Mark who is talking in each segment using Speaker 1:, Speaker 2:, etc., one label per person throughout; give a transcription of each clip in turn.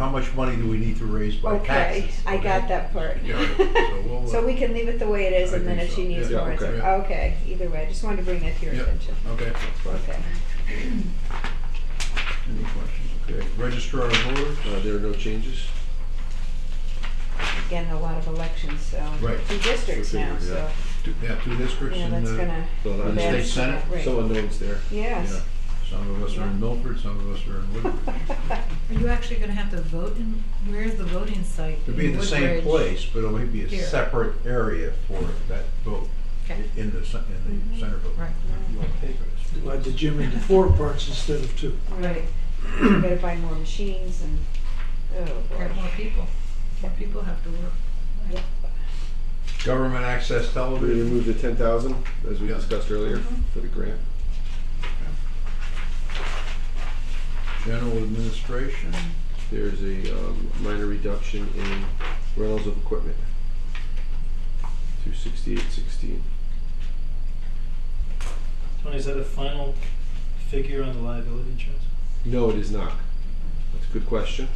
Speaker 1: much money do we need to raise by
Speaker 2: Okay,
Speaker 1: taxes?
Speaker 2: I got that part.
Speaker 1: Yeah, so we'll, uh,
Speaker 2: So we can leave it the way it is
Speaker 1: I
Speaker 2: and then
Speaker 1: think
Speaker 2: if she
Speaker 1: so,
Speaker 2: needs
Speaker 1: yeah.
Speaker 2: more,
Speaker 1: Yeah,
Speaker 2: it's,
Speaker 1: okay.
Speaker 2: okay, either way, I just wanted to bring that to your
Speaker 1: Yeah.
Speaker 2: attention.
Speaker 1: Okay, that's fine.
Speaker 2: Okay.
Speaker 1: Any questions? Okay, registrar of voters?
Speaker 3: Uh, there are no changes?
Speaker 2: Again, a lot of elections, so,
Speaker 1: Right.
Speaker 2: two districts now,
Speaker 3: Figure,
Speaker 2: so,
Speaker 3: yeah.
Speaker 1: Two- Yeah, two districts
Speaker 2: yeah,
Speaker 1: and
Speaker 2: that's
Speaker 1: uh,
Speaker 2: gonna,
Speaker 3: No, not-
Speaker 1: the state
Speaker 2: that's-
Speaker 1: senate?
Speaker 2: right.
Speaker 3: Some unknowns there.
Speaker 1: Yeah.
Speaker 2: yes.
Speaker 1: Some of us are in Milford, some of us are in Woodbridge.
Speaker 4: Are you actually gonna have to vote in, where's the voting site?
Speaker 1: It'd be in the same
Speaker 4: Woodbridge?
Speaker 1: place, but it would be a
Speaker 4: Here.
Speaker 1: separate area for that vote, i-
Speaker 4: Okay,
Speaker 1: in the, cen- in the
Speaker 2: Mhm.
Speaker 1: center vote.
Speaker 4: right,
Speaker 5: Divide the gym into four parts instead of two.
Speaker 2: Right, we gotta buy more machines and, oh boy.
Speaker 4: Got more people, more people have to work.
Speaker 2: Yep.
Speaker 1: Government access
Speaker 3: We're gonna
Speaker 1: television,
Speaker 3: remove the ten thousand, as we
Speaker 1: Yeah.
Speaker 3: discussed earlier,
Speaker 2: Mm-hmm.
Speaker 3: for the grant.
Speaker 1: general administration,
Speaker 3: There's a, um, minor reduction in rentals of equipment. Two sixty-eight sixteen.
Speaker 6: Tony, is that a final figure on the liability insurance?
Speaker 3: No, it is not. That's a good question.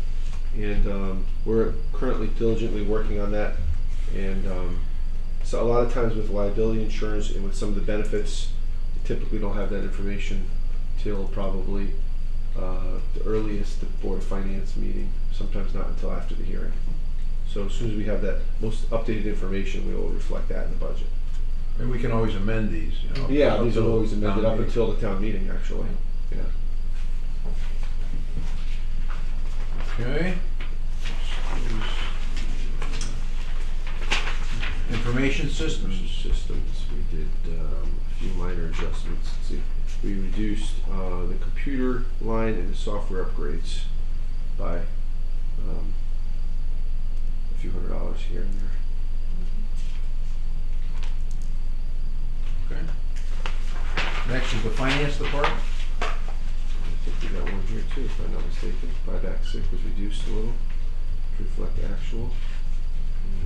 Speaker 3: And um, we're currently diligently working on that. And um, so a lot of times with liability insurance and with some of the benefits, you typically don't have that information till probably uh, the earliest, the Board of Finance meeting, sometimes not until after the hearing. So as soon as we have that most updated information, we will reflect that in the budget.
Speaker 1: and we can always amend these, you know.
Speaker 3: Yeah,
Speaker 1: up
Speaker 3: these are
Speaker 1: till
Speaker 3: always amended
Speaker 1: town
Speaker 3: up
Speaker 1: meeting.
Speaker 3: until the town meeting, actually. Yeah.
Speaker 1: Okay. Information
Speaker 3: Versus
Speaker 1: systems,
Speaker 3: systems, we did um, a few minor adjustments. Let's see, we reduced uh, the computer line and the software upgrades by um, a few hundred dollars here and there.
Speaker 1: okay. Next is the finance department,
Speaker 3: I think we got one here too, if I'm not mistaken. Buyback sick was reduced a little to reflect actual,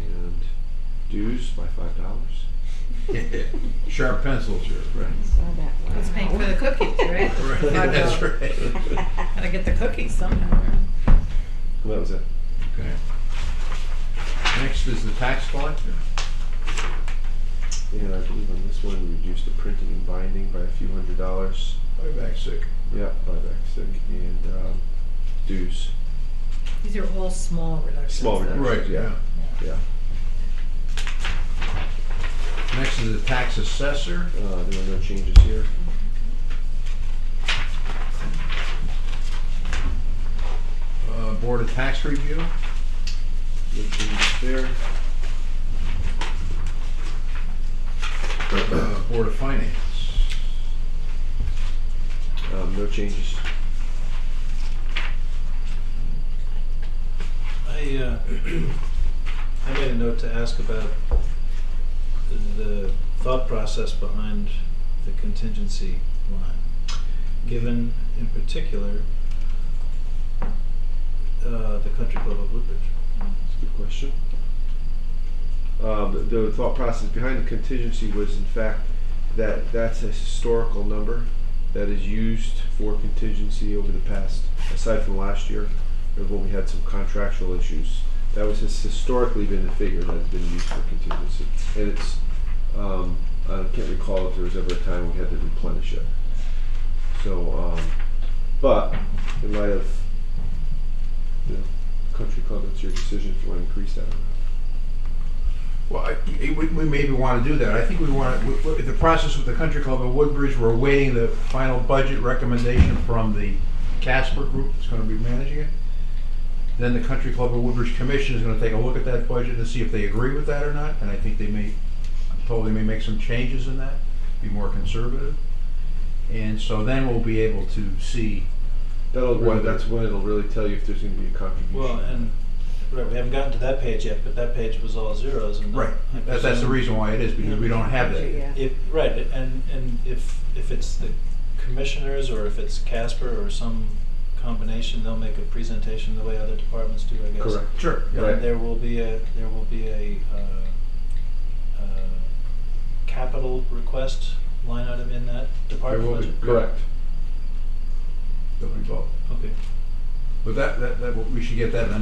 Speaker 3: and dues by five dollars.
Speaker 1: sharp pencils here.
Speaker 3: Right.
Speaker 2: Saw that one.
Speaker 4: It's paying for the cookies, right?
Speaker 1: Right,
Speaker 4: Five
Speaker 1: that's
Speaker 4: dollars.
Speaker 1: right.
Speaker 4: Gotta get the cookies somehow.
Speaker 3: Well, that was it.
Speaker 1: Okay. Next is the tax collector.
Speaker 3: And I believe on this one, we reduced the printing and binding by a few hundred dollars.
Speaker 1: Way back sick.
Speaker 3: Yeah, buyback sick and um, dues.
Speaker 4: These are all small reductions.
Speaker 3: Small
Speaker 4: though.
Speaker 3: reductions.
Speaker 1: Right, yeah.
Speaker 3: Yeah. Yeah,
Speaker 1: Next is the tax assessor.
Speaker 3: uh, there were no changes here.
Speaker 1: Uh, Board of Tax Review,
Speaker 3: No changes there.
Speaker 1: uh, Board of Finance.
Speaker 3: Um, no changes.
Speaker 6: I, uh, I made a note to ask about the- the thought process behind the contingency line, given in particular, uh, the Country Club of Woodbridge.
Speaker 3: That's a good question. Um, the- the thought process behind the contingency was, in fact, that that's a historical number that is used for contingency over the past, aside from last year, or when we had some contractual issues. That was has historically been the figure that's been used for contingency, and it's. Um, I can't recall if there was ever a time we had to replenish it. So, um, but in light of the country club, it's your decision if you want to increase that or not.
Speaker 1: Well, I- I- we we maybe want to do that. I think we want, to. the process with the Country Club of Woodbridge, we're awaiting the final budget recommendation from the Casper Group that's going to be managing it. Then the Country Club of Woodbridge Commission is going to take a look at that budget and see if they agree with that or not. And I think they may, I'm told they may make some changes in that, be more conservative. And so then we'll be able to see,
Speaker 3: That'll
Speaker 1: Whether-
Speaker 3: when, that's when it'll really tell you if there's going to be a contribution.
Speaker 6: Well, and, right, we haven't gotten to that page yet, but that page was all zeros and.
Speaker 1: right,
Speaker 6: I
Speaker 1: That- that's the
Speaker 6: presume-
Speaker 1: reason why it is, because we don't have that yet.
Speaker 2: Yeah.
Speaker 6: If, right, and, and if, if it's the commissioners, or if it's Casper, or some combination, they'll make a presentation the way other departments do, I guess.
Speaker 3: Correct.
Speaker 1: Sure, yeah.
Speaker 3: Right.
Speaker 6: And there will be a, there will be a, uh, uh, capital request line item in that department
Speaker 1: will be.
Speaker 6: budget?
Speaker 3: Correct.
Speaker 1: They'll be both.
Speaker 6: Okay.
Speaker 1: But that, that, that, we should get that in the